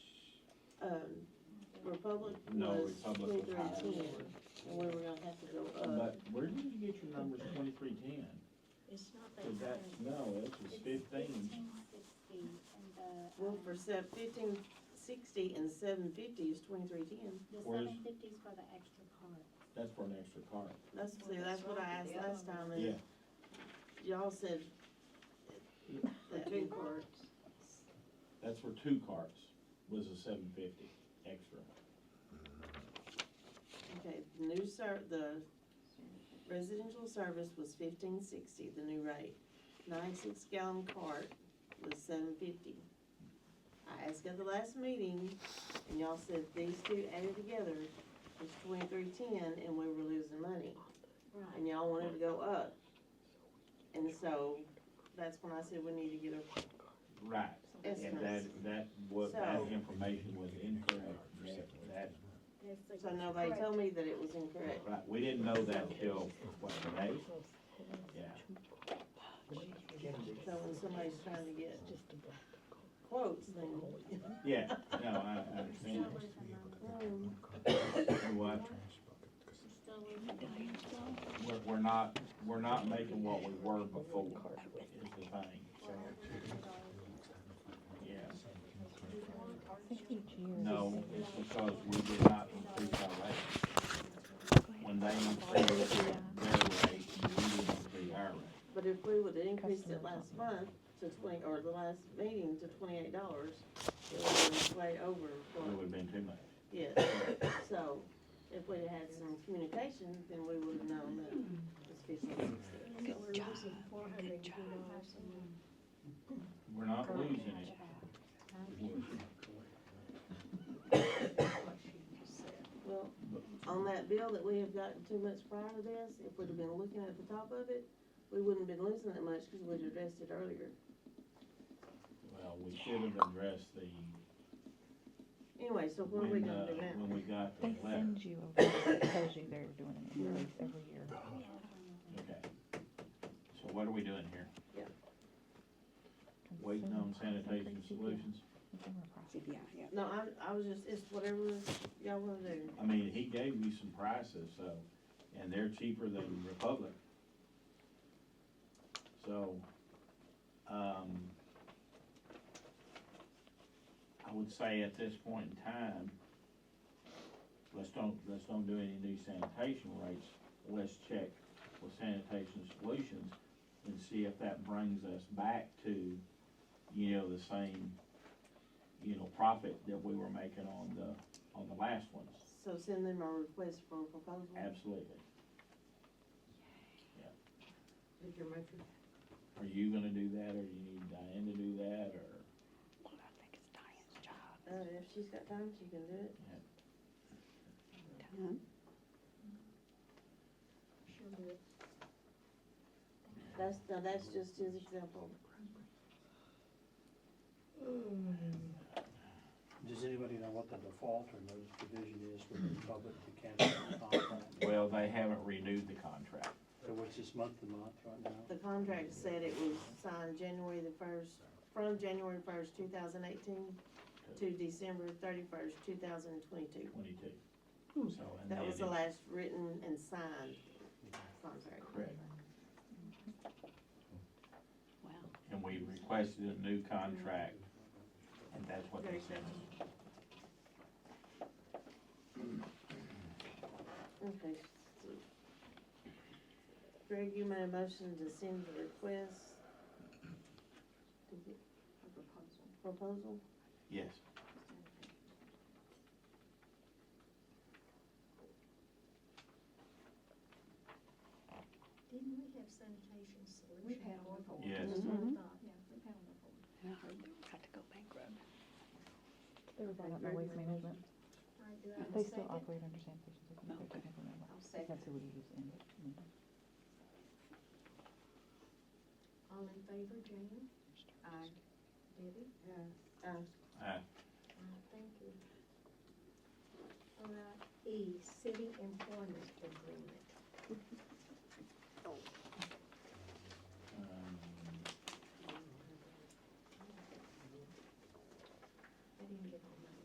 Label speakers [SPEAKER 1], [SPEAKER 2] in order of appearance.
[SPEAKER 1] um, Republic
[SPEAKER 2] No,
[SPEAKER 1] was
[SPEAKER 2] Republic was
[SPEAKER 1] bigger than
[SPEAKER 2] higher.
[SPEAKER 1] ten, and we were gonna have to go uh, up.
[SPEAKER 2] But where did you get your numbers twenty-three ten?
[SPEAKER 3] It's not that
[SPEAKER 2] Cause that,
[SPEAKER 3] high.
[SPEAKER 2] no, this was
[SPEAKER 4] It's
[SPEAKER 2] fifteen.
[SPEAKER 4] 15.60, and the,
[SPEAKER 1] Well,
[SPEAKER 4] um,
[SPEAKER 1] for seven, fifteen sixty and seven fifty is twenty-three ten.
[SPEAKER 4] The
[SPEAKER 2] Where's-
[SPEAKER 4] seven fifties for the extra card.
[SPEAKER 2] That's for an extra car.
[SPEAKER 1] That's, see, that's what I asked last time,
[SPEAKER 2] Yeah,
[SPEAKER 1] and y'all said. that
[SPEAKER 5] two
[SPEAKER 1] would-
[SPEAKER 5] parts.
[SPEAKER 2] that's for two carts, was a seven fifty extra.
[SPEAKER 1] Okay, the new ser, the residential service was fifteen sixty, the new rate. Ninety-six gallon cart was seven fifty. I asked at the last meeting, and y'all said these two added together was twenty-three ten, and we were losing money.
[SPEAKER 3] Right,
[SPEAKER 1] And y'all wanted to go up. And so, that's when I said we need to get a
[SPEAKER 2] Right, and that,
[SPEAKER 1] estimate.
[SPEAKER 2] that was, that
[SPEAKER 1] So-
[SPEAKER 2] information was incorrect, that, that,
[SPEAKER 4] That's like-
[SPEAKER 1] So nobody told me that it was incorrect.
[SPEAKER 2] right, we didn't know that till, what, today? Yeah,
[SPEAKER 1] So when somebody's trying to get quotes, then,
[SPEAKER 2] yeah, no, I, I
[SPEAKER 4] We're still
[SPEAKER 2] understand.
[SPEAKER 4] with the money.
[SPEAKER 1] um,
[SPEAKER 2] What,
[SPEAKER 4] We're still with the money.
[SPEAKER 2] we're, we're not, we're not making what we were before, is the thing, so, yeah. No, it's because we did not increase our rate. When they increased their rate, we didn't increase our rate.
[SPEAKER 1] But if we would've increased it last month to twenty, or the last meeting to twenty-eight dollars, it would've been way over
[SPEAKER 2] It
[SPEAKER 1] for,
[SPEAKER 2] would've been too much.
[SPEAKER 1] yes. So, if we'd had some communication, then we would've known that it was fifteen sixty.
[SPEAKER 3] good job, good job.
[SPEAKER 2] We're not losing it.
[SPEAKER 1] Well, on that bill that we have gotten two months prior to this, if we'd have been looking at the top of it, we wouldn't have been losing that much, cause we'd addressed it earlier.
[SPEAKER 2] Well, we should have addressed the,
[SPEAKER 1] Anyway, so what are we
[SPEAKER 2] when,
[SPEAKER 1] gonna
[SPEAKER 2] uh,
[SPEAKER 1] do now?
[SPEAKER 2] when we got the
[SPEAKER 6] They
[SPEAKER 2] letter.
[SPEAKER 6] send you a, it tells you they're doing an increase every year.
[SPEAKER 2] Okay. So what are we doing here? Waiting on
[SPEAKER 6] Consumer price
[SPEAKER 2] sanitation
[SPEAKER 6] increase, CPI.
[SPEAKER 2] solutions?
[SPEAKER 6] Consumer price.
[SPEAKER 1] No, I, I was just, it's whatever y'all wanna do.
[SPEAKER 2] I mean, he gave me some prices, so, and they're cheaper than Republic. So, um, I would say at this point in time, let's don't, let's don't do any new sanitation rates. Let's check with sanitation solutions and see if that brings us back to, you know, the same, you know, profit that we were making on the, on the last ones.
[SPEAKER 1] So send them our request for a proposal.
[SPEAKER 2] Absolutely. Yeah.
[SPEAKER 5] Did your matrix
[SPEAKER 2] Are you gonna do that, or do you need Diane to do that, or?
[SPEAKER 1] Uh, if she's got time, she can do it. That's, now that's just his example.
[SPEAKER 7] Does anybody know what the default or notice provision is with the public to cancel the contract?
[SPEAKER 2] Well, they haven't renewed the contract.
[SPEAKER 7] So what's this month to month right now?
[SPEAKER 1] The contract said it was signed January the first, from January first, two thousand eighteen to December thirty-first, two thousand twenty-two.
[SPEAKER 2] Twenty-two. So,
[SPEAKER 1] Hmm,
[SPEAKER 2] and
[SPEAKER 1] That was the
[SPEAKER 2] then it-
[SPEAKER 1] last written and signed contract.
[SPEAKER 2] Correct. And we requested a new contract, and that's what they sent us.
[SPEAKER 1] Okay. so- Greg, you made a motion to send the request. to get
[SPEAKER 5] proposal?
[SPEAKER 1] Proposal?
[SPEAKER 2] Yes.
[SPEAKER 4] Didn't we have sanitation solution?
[SPEAKER 5] We've had one before.
[SPEAKER 2] Yes.
[SPEAKER 4] That's what I
[SPEAKER 1] Mhm.
[SPEAKER 6] Mm-hmm.
[SPEAKER 4] thought, yeah, we've had one before.
[SPEAKER 6] They were brought up by waste management.
[SPEAKER 4] All right, do I have a
[SPEAKER 6] They still
[SPEAKER 4] second?
[SPEAKER 6] operate under sanitation. so they can implement
[SPEAKER 5] I'll
[SPEAKER 6] it.
[SPEAKER 5] second.
[SPEAKER 6] That's who we use in. in-
[SPEAKER 4] All in favor, Jane?
[SPEAKER 5] Aye.
[SPEAKER 4] Uh, Debbie?
[SPEAKER 1] Uh,
[SPEAKER 2] Aye.
[SPEAKER 4] Aye, thank you. Uh, All right, E, city employment agreement.
[SPEAKER 2] um,